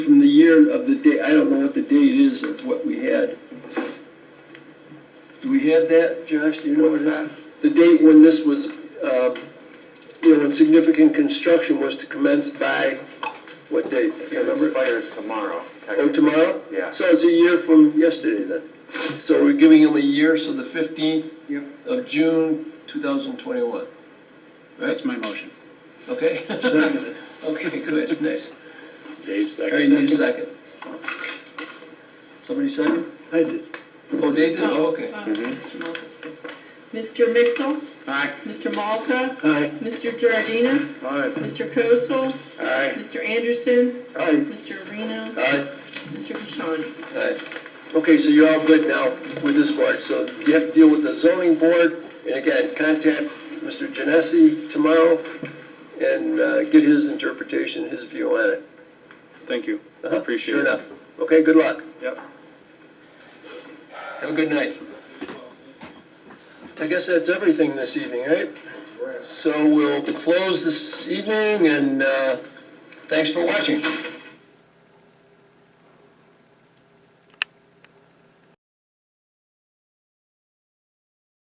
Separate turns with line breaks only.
clear of the date, I don't know what the date is of what we had. Do we have that, Josh? Do you know what it is? The date when this was, uh, you know, when significant construction was to commence by, what date? Do you
It
remember?
expires tomorrow.
Oh,
technically.
tomorrow?
Yeah.
So it's a year from yesterday then. So we're giving him a year, so the 15th
Yep.
of June 2021.
That's my motion.
Okay? Okay, good, nice.
Dave
Harry,
second.
need a second. Somebody second?
I did.
Oh, they did, oh, okay. Mm-hmm.
Uh, Mr. Malta. Mr. Mixel,
Aye.
Mr. Malta,
Aye.
Mr. Giardina,
Aye.
Mr. Kosel,
Aye.
Mr. Anderson,
Aye.
Mr. Reno,
Aye.
Mr. Pishani.
Alright. Okay, so you're all good now with this part, so you have to deal with the zoning board, and again, contact Mr. Genesi tomorrow and uh, get his interpretation, his view on it.
Thank you.
Uh-huh,
Appreciate
Sure
it.
enough. Okay, good luck.
Yep.
Have a good night. I guess that's everything this evening, right? So we'll close this evening, and uh, thanks for watching.